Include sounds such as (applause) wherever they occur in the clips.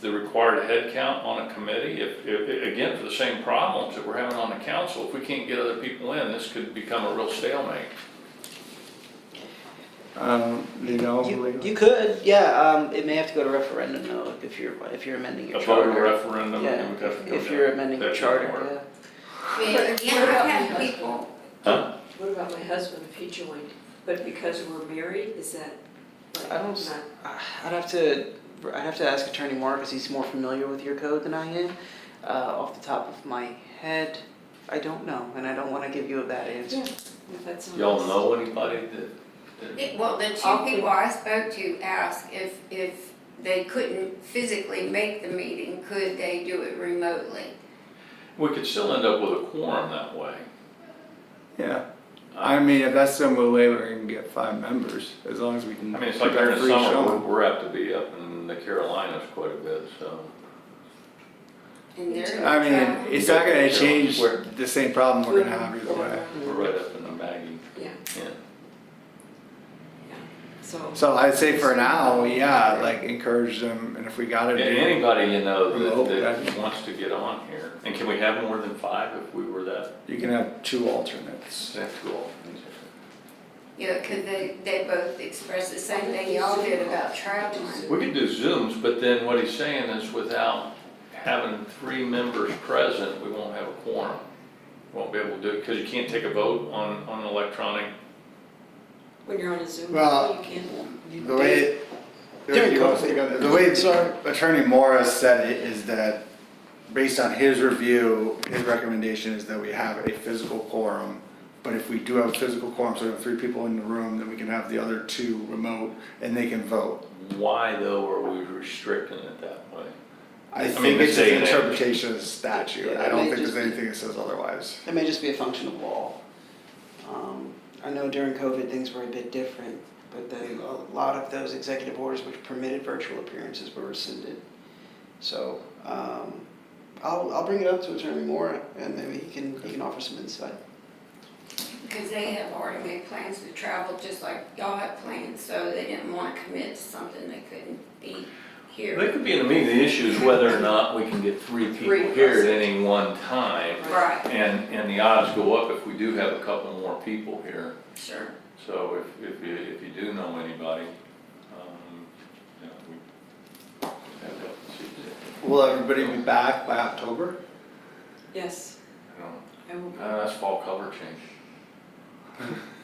the required head count on a committee, if, if, again, for the same problems that we're having on the council, if we can't get other people in, this could become a real stalemate. Um, do you know? You, Leo? you could, yeah, um, it may have to go to referendum though, if you're, if you're amending your A vote or charter. referendum, we Yeah, would have to go if you're down. amending your That doesn't charter, work. yeah. I mean, But again, what about I've had my husband? people, What about my husband if he joined? But because we're married, is that like I don't s- not? Uh, I'd have to, I'd have to ask Attorney Moore, because he's more familiar with your code than I am. Uh, off the top of my head, I don't know, and I don't wanna give you a bad answer. if that's not- Y'all know anybody that, that, it- well, the two I'll- people I spoke to asked if, if they couldn't physically make the meeting, could they do it remotely? We could still end up with a quorum that way. Yeah, I mean, if that's the only way we're gonna get five members, as long as we can. I mean, it's like keep our during the free summer, we're, showing. we're apt to be up in the Carolinas quite a bit, so. And they're. I mean, traveling. it's not gonna change We're- the same problem we're gonna have either way. We're right up in the Maggie. Yeah, Yeah. so. So I'd say for now, yeah, like encourage them, and if we gotta And do, Anybody you know Remote, that, right. that wants to get on here, and can we have more than five if we were that, you can have two alternates. that cool? Yeah, could they, they both express the same thing y'all did about traveling. We could do Zooms, but then what he's saying is without having three members present, we won't have a quorum. Won't be able to do it, because you can't take a vote on, on electronic. When you're on a Zoom, Well, call, you can. The way, During you want to speak on that? the way Sorry. Attorney Morris said it is that, based on his review, his recommendation is that we have a physical quorum. But if we do have a physical quorum, so we have three people in the room, then we can have the other two remote and they can vote. Why though are we restricting it that way? I mean, think the it's just an same. interpretation of the statute, I Yeah, don't they think there's just- anything that says otherwise. It may just be a function of law. Um, I know during COVID, things were a bit different, but then a lot of those executive orders which permitted virtual appearances were rescinded. So, um, I'll, I'll bring it up to Attorney Moore, and maybe he can, he can offer some insight. Because they have already made plans to travel, just like y'all had plans, so they didn't want to commit to something they couldn't be They here. could be in the meeting, the issue is whether or not we can get three people Three here at present. any one time. Right, And, and the odds go up if we do have a couple more people here. sure. So if, if you, if you do know anybody, um, you know, we have that, see, Will everybody be back by October? Yes, I don't, I will be uh, that's fall color change.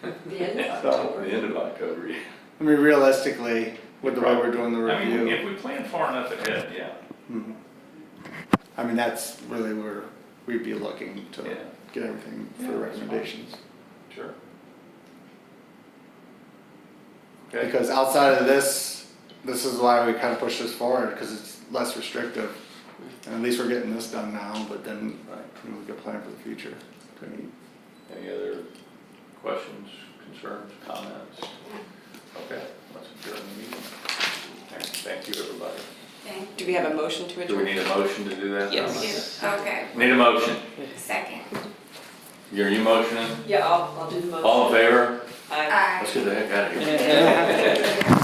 at the (laughs) end Yeah, of So- The October. end of October, yeah. I mean, realistically, with the way we're doing the I mean, review, if we plan far enough ahead, yeah, Mhm. I mean, that's really where we'd be looking to Yeah. get everything for Yeah, the that's fine. recommendations. sure. Okay. Because outside of this, this is why we kind of push this forward, because it's less restrictive. And at least we're getting this done now, but then you know, we could plan for the future. Any other questions, concerns, comments? Okay, let's adjourn the meeting. Thank- Thank you, everybody. Thank Do we have a motion to Do we need a motion to do that? Yes. you. Okay, Need a motion. second. You're, you motioning? Yeah, I'll, I'll do the motion. All in favor? Aye. Aye. Let's get the heck out of here. Yeah.